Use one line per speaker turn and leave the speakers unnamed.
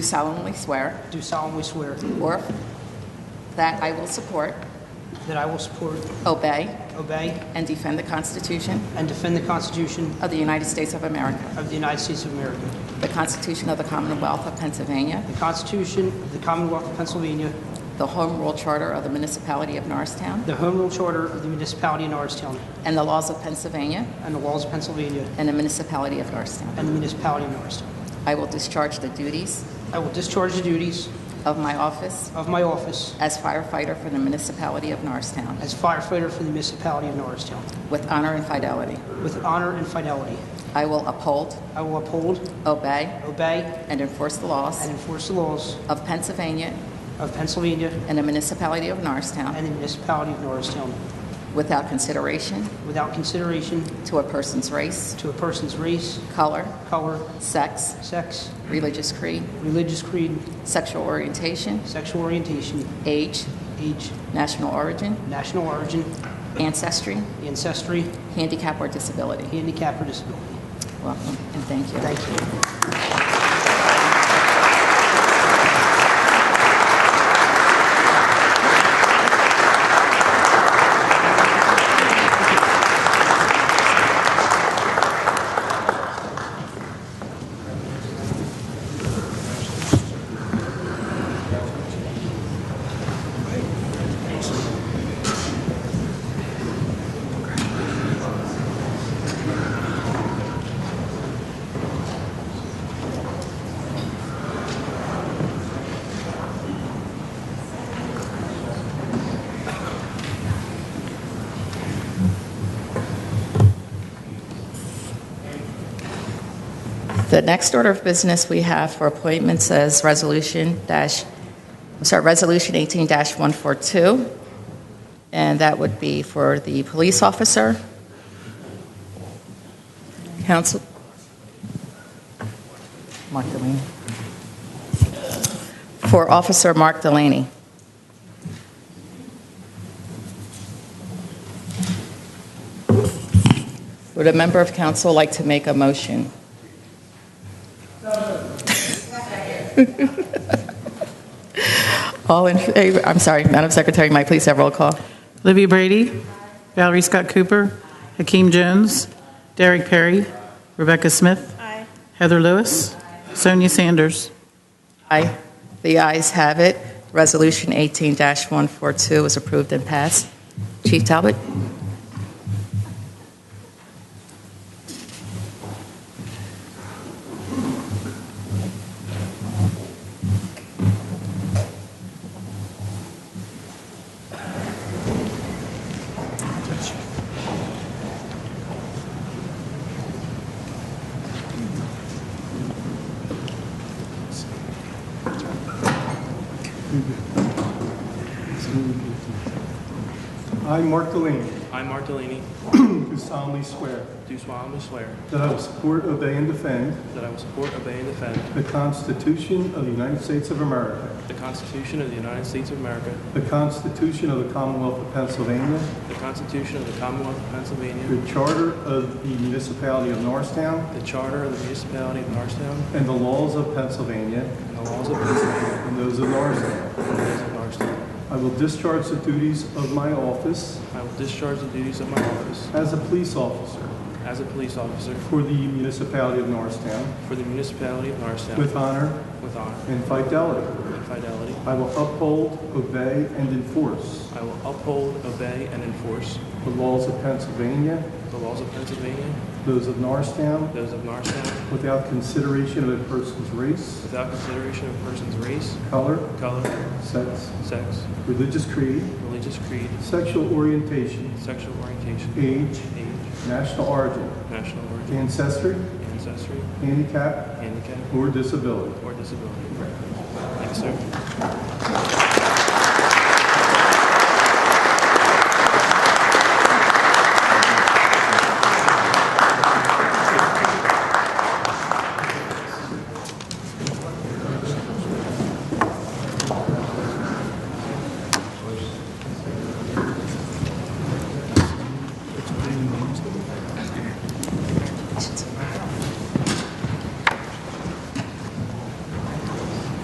solemnly swear
Do solemnly swear
or that I will support,
that I will support,
obey,
obey,
and defend the Constitution
and defend the Constitution
of the United States of America,
of the United States of America,
the Constitution of the Commonwealth of Pennsylvania,
the Constitution of the Commonwealth of Pennsylvania,
the Home Rule Charter of the Municipality of Norristown,
the Home Rule Charter of the Municipality of Norristown,
and the laws of Pennsylvania
and the laws of Pennsylvania
and the Municipality of Norristown.
and the Municipality of Norristown.
I will discharge the duties
I will discharge the duties
of my office
of my office
as firefighter for the Municipality of Norristown
as firefighter for the Municipality of Norristown
with honor and fidelity.
with honor and fidelity.
I will uphold,
I will uphold,
obey,
obey,
and enforce the laws
and enforce the laws
of Pennsylvania
of Pennsylvania
and the Municipality of Norristown
and the Municipality of Norristown
without consideration
without consideration
to a person's race,
to a person's race,
color,
color,
sex,
sex,
religious creed,
religious creed,
sexual orientation,
sexual orientation,
age,
age,
national origin,
national origin,
ancestry,
ancestry,
handicap, or disability.
handicap, or disability.
Welcome and thank you.
Thank you.
The next order of business we have for appointments is Resolution dash, I'm sorry, Resolution 18-142, and that would be for the police officer. Council, Mark Delaney. For Officer Mark Delaney. Would a member of council like to make a motion? All in favor, I'm sorry, Madam Secretary, may I please have roll call?
Libby Brady, Valerie Scott Cooper, Hakeem Jones, Derek Perry, Rebecca Smith, Heather Lewis, Sonia Sanders.
Aye. The ayes have it. Resolution 18-142 is approved and passed. Chief Talbot?
I, Mark Delaney,
I, Mark Delaney,
do solemnly swear
do solemnly swear
that I will support, obey, and defend
that I will support, obey, and defend
the Constitution of the United States of America,
the Constitution of the United States of America,
the Constitution of the Commonwealth of Pennsylvania,
the Constitution of the Commonwealth of Pennsylvania,
the Charter of the Municipality of Norristown,
the Charter of the Municipality of Norristown,
and the laws of Pennsylvania
and the laws of Pennsylvania
and those of Norristown.
and those of Norristown.
I will discharge the duties of my office
I will discharge the duties of my office
as a police officer
as a police officer
for the Municipality of Norristown
for the Municipality of Norristown
with honor
with honor
and fidelity.
and fidelity.
I will uphold, obey, and enforce
I will uphold, obey, and enforce
the laws of Pennsylvania,
the laws of Pennsylvania,
those of Norristown,
those of Norristown,
Without consideration of a person's race,
without consideration of a person's race,
color,
color,
sex,
sex,
religious creed,
religious creed,
sexual orientation,
sexual orientation,
age,
age,
national origin,
national origin,
ancestry,
ancestry,
handicap,
handicap,
or disability.
or disability. Thanks, sir.